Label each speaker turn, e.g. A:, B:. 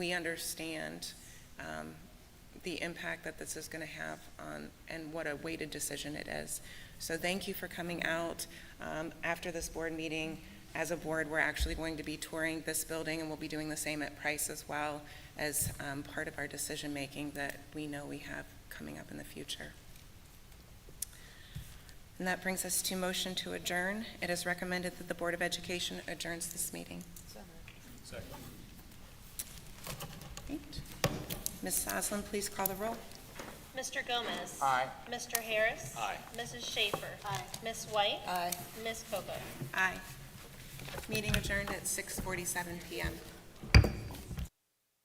A: we understand um, the impact that this is going to have on, and what a weighted decision it is. So thank you for coming out. Um, After this board meeting, as a board, we're actually going to be touring this building, and we'll be doing the same at Price as well, as um, part of our decision-making that we know we have coming up in the future. And that brings us to motion to adjourn. It is recommended that the Board of Education adjourns this meeting. Great. Ms. Oslin, please call the roll.
B: Mr. Gomez.
C: Aye.
B: Mr. Harris.
C: Aye.
B: Mrs. Schaefer. Aye. Ms. White. Aye. Ms. Coco.
A: Aye. Meeting adjourned at 6:47 PM.